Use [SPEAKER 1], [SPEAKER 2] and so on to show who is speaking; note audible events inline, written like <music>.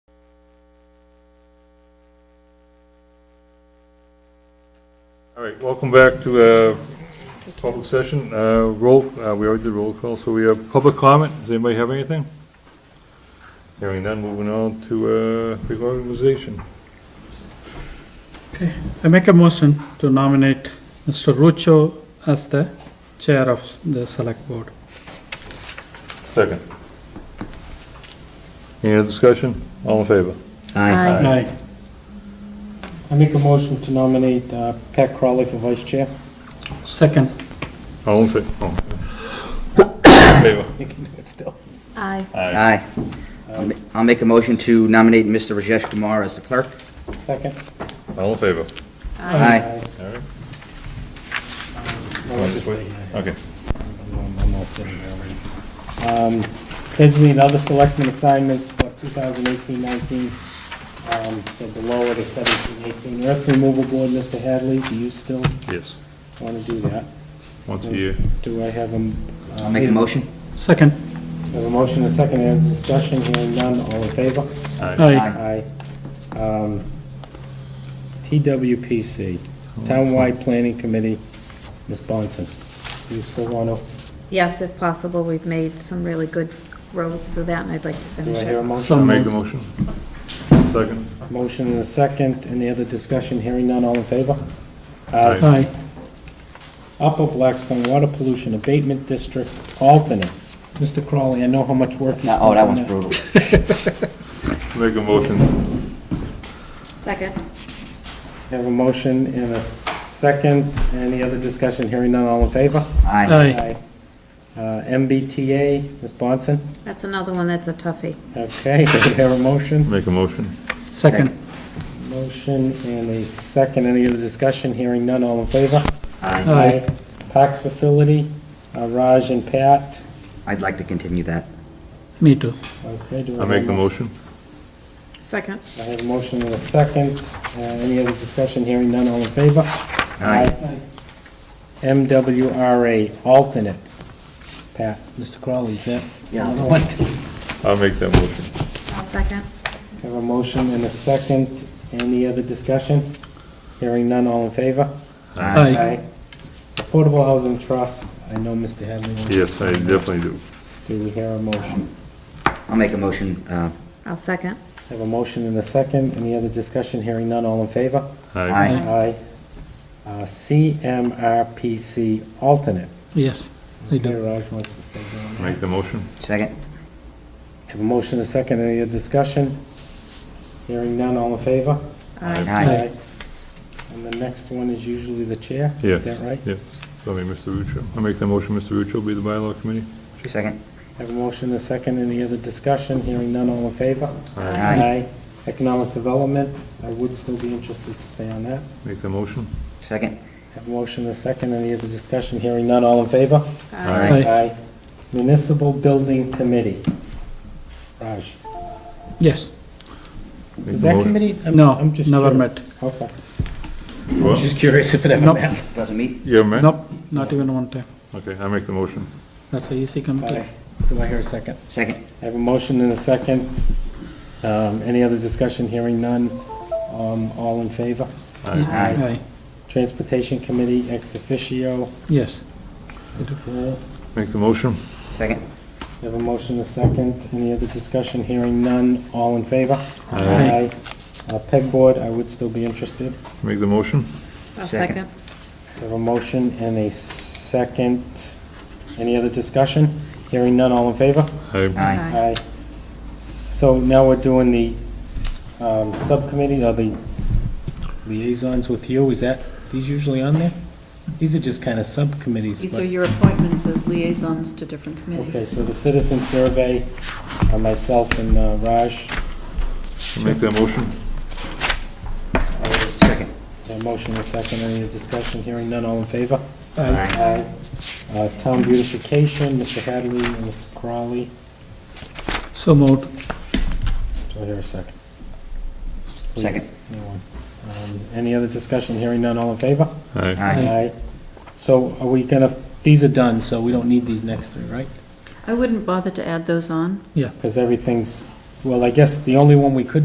[SPEAKER 1] All right, welcome back to uh, public session. Uh, Roll, uh, we already did roll call, so we have public comment. Does anybody have anything? Hearing none, moving on to uh, reorganization.
[SPEAKER 2] I make a motion to nominate Mr. Rucho as the chair of the select board.
[SPEAKER 1] Second. Any other discussion? All in favor?
[SPEAKER 3] Aye.
[SPEAKER 2] Aye.
[SPEAKER 4] I make a motion to nominate uh, Pat Crowley for vice chair.
[SPEAKER 2] Second.
[SPEAKER 1] All in favor? <coughs> Favor?
[SPEAKER 4] You can do it still.
[SPEAKER 3] Aye.
[SPEAKER 1] Aye.
[SPEAKER 5] Aye. I'll ma- I'll make a motion to nominate Mr. Rajesh Kumar as the clerk.
[SPEAKER 4] Second.
[SPEAKER 1] All in favor?
[SPEAKER 5] Aye.
[SPEAKER 1] All right.
[SPEAKER 4] No, I'll just stay here.
[SPEAKER 1] Okay.
[SPEAKER 4] I'm- I'm all sitting here already. Um, Designate other selectmen assignments for 2018-19, um, so below it is 17-18. Earth removal board, Mr. Hadley, do you still
[SPEAKER 1] Yes,
[SPEAKER 4] want to do that?
[SPEAKER 1] once a year.
[SPEAKER 4] Do I have a... um,
[SPEAKER 5] I'll make a motion.
[SPEAKER 2] Second.
[SPEAKER 4] Have a motion and a second, any discussion, hearing none, all in favor?
[SPEAKER 1] Aye.
[SPEAKER 2] Aye.
[SPEAKER 4] Aye. Um, TWPC, Townwide Planning Committee, Ms. Bonson, do you still want to,
[SPEAKER 3] Yes, if possible, we've made some really good roads through that, and I'd like to
[SPEAKER 4] do
[SPEAKER 3] finish
[SPEAKER 4] I hear a
[SPEAKER 3] it.
[SPEAKER 4] motion?
[SPEAKER 2] So
[SPEAKER 1] Make
[SPEAKER 2] moved.
[SPEAKER 1] the motion. Second.
[SPEAKER 4] Motion and a second, any other discussion, hearing none, all in favor?
[SPEAKER 1] Aye.
[SPEAKER 2] Aye.
[SPEAKER 4] Upper Blackstone Water Pollution Abatement District Alternate, Mr. Crowley, I know how much work you
[SPEAKER 5] No,
[SPEAKER 4] spent
[SPEAKER 5] Oh, that
[SPEAKER 4] on
[SPEAKER 5] one's
[SPEAKER 4] that.
[SPEAKER 5] brutal.
[SPEAKER 1] Make a motion.
[SPEAKER 3] Second.
[SPEAKER 4] Have a motion and a second, any other discussion, hearing none, all in favor?
[SPEAKER 5] Aye.
[SPEAKER 2] Aye.
[SPEAKER 4] Uh, MBTA, Ms. Bonson,
[SPEAKER 3] That's another one that's a toughie.
[SPEAKER 4] okay, <laughs> do we have a motion?
[SPEAKER 1] Make a motion.
[SPEAKER 2] Second.
[SPEAKER 4] Motion and a second, any other discussion, hearing none, all in favor?
[SPEAKER 5] Aye.
[SPEAKER 2] Aye.
[SPEAKER 4] Parks Facility, uh, Raj and Pat.
[SPEAKER 5] I'd like to continue that.
[SPEAKER 2] Me too.
[SPEAKER 4] Okay, do I
[SPEAKER 1] I
[SPEAKER 4] have
[SPEAKER 1] make
[SPEAKER 4] a
[SPEAKER 1] the
[SPEAKER 4] mo-
[SPEAKER 1] motion.
[SPEAKER 3] Second.
[SPEAKER 4] I have a motion and a second, Uh, any other discussion, hearing none, all in favor?
[SPEAKER 5] Aye.
[SPEAKER 4] MWRA, alternate. Pat, Mr. Crowley, is that?
[SPEAKER 5] Yeah.
[SPEAKER 4] Another one?
[SPEAKER 1] I'll make that motion.
[SPEAKER 3] I'll second.
[SPEAKER 4] Have a motion and a second, any other discussion? Hearing none, all in favor?
[SPEAKER 2] Aye.
[SPEAKER 4] Affordable Housing Trust, I know Mr. Hadley wants to...
[SPEAKER 1] Yes, I definitely do.
[SPEAKER 4] Do we hear a motion?
[SPEAKER 5] I'll make a motion, uh,
[SPEAKER 3] I'll second.
[SPEAKER 4] Have a motion and a second. Any other discussion? Hearing none. All in favor?
[SPEAKER 5] Aye.
[SPEAKER 4] Aye. Uh, CMRPC alternate.
[SPEAKER 2] Yes. I
[SPEAKER 4] Okay,
[SPEAKER 2] do.
[SPEAKER 4] Raj wants to stay down there.
[SPEAKER 1] Make the motion.
[SPEAKER 5] second.
[SPEAKER 4] Have a motion and a second. Any other discussion? Hearing none. All in favor?
[SPEAKER 3] Aye.
[SPEAKER 5] Aye.
[SPEAKER 4] And the next one is usually the chair?
[SPEAKER 1] Yeah.
[SPEAKER 4] Is that right?
[SPEAKER 1] Yes. So, I mean, Mr. Rucho, I make the motion, Mr. Rucho be the bylaw committee.
[SPEAKER 5] Second.
[SPEAKER 4] Have a motion and a second. Any other discussion? Hearing none. All in favor?
[SPEAKER 3] Aye.
[SPEAKER 5] Aye.
[SPEAKER 4] Economic development. I would still be interested to stay on that.
[SPEAKER 1] Make the motion.
[SPEAKER 5] Second.
[SPEAKER 4] Have a motion and a second. Any other discussion? Hearing none. All in favor?
[SPEAKER 1] Aye.
[SPEAKER 2] Aye.
[SPEAKER 4] Aye. Municipal Building Committee. Raj,
[SPEAKER 2] Yes.
[SPEAKER 1] Make
[SPEAKER 4] is
[SPEAKER 1] the
[SPEAKER 4] that
[SPEAKER 1] motion.
[SPEAKER 4] committee? I'm-
[SPEAKER 2] No,
[SPEAKER 4] I'm just
[SPEAKER 2] never
[SPEAKER 4] curious.
[SPEAKER 2] met.
[SPEAKER 4] Okay.
[SPEAKER 1] What?
[SPEAKER 4] Just curious if it ever
[SPEAKER 2] Nope.
[SPEAKER 4] met.
[SPEAKER 5] Doesn't meet.
[SPEAKER 1] You have a man?
[SPEAKER 2] Nope, not even one time.
[SPEAKER 1] Okay, I make the motion.
[SPEAKER 2] That's a easy committee.
[SPEAKER 4] Aye. Do I hear a second?
[SPEAKER 5] Second.
[SPEAKER 4] I have a motion and a second. Um, Any other discussion? Hearing none. Um, All in favor?
[SPEAKER 1] Aye.
[SPEAKER 5] Aye.
[SPEAKER 2] Aye.
[SPEAKER 4] Transportation Committee, ex officio.
[SPEAKER 2] Yes.
[SPEAKER 4] Okay.
[SPEAKER 1] Make the motion.
[SPEAKER 5] Second.
[SPEAKER 4] I have a motion and a second. Any other discussion? Hearing none. All in favor?
[SPEAKER 2] Aye.
[SPEAKER 4] Aye. Uh, Pegboard, I would still be interested.
[SPEAKER 1] Make the motion.
[SPEAKER 3] I'll
[SPEAKER 5] Second.
[SPEAKER 3] second.
[SPEAKER 4] We have a motion and a second. Any other discussion? Hearing none, all in favor?
[SPEAKER 1] Aye.
[SPEAKER 5] Aye.
[SPEAKER 3] Aye.
[SPEAKER 4] So now we're doing the um, subcommittee, or the liaisons with you, is that, these usually on there? These are just kind of subcommittees,
[SPEAKER 6] These
[SPEAKER 4] but-
[SPEAKER 6] are your appointments as liaisons to different
[SPEAKER 4] Okay,
[SPEAKER 6] committees.
[SPEAKER 4] so the citizen survey, uh, myself and uh, Raj,
[SPEAKER 1] Make that motion.
[SPEAKER 5] Second.
[SPEAKER 4] a motion and a second, any discussion? Hearing none, all in favor?
[SPEAKER 2] Aye.
[SPEAKER 4] Aye. Uh, Town beautification, Mr. Hadley and Mr. Crowley.
[SPEAKER 2] So moved.
[SPEAKER 4] Do I hear a second? Please,
[SPEAKER 5] Second.
[SPEAKER 4] anyone. Um, Any other discussion? Hearing none, all in favor?
[SPEAKER 1] Aye.
[SPEAKER 5] Aye.
[SPEAKER 4] So are we gonna, these are done, so we don't need these next three, right?
[SPEAKER 6] I wouldn't bother to add those on.
[SPEAKER 4] Because everything's, well, I guess the only one we could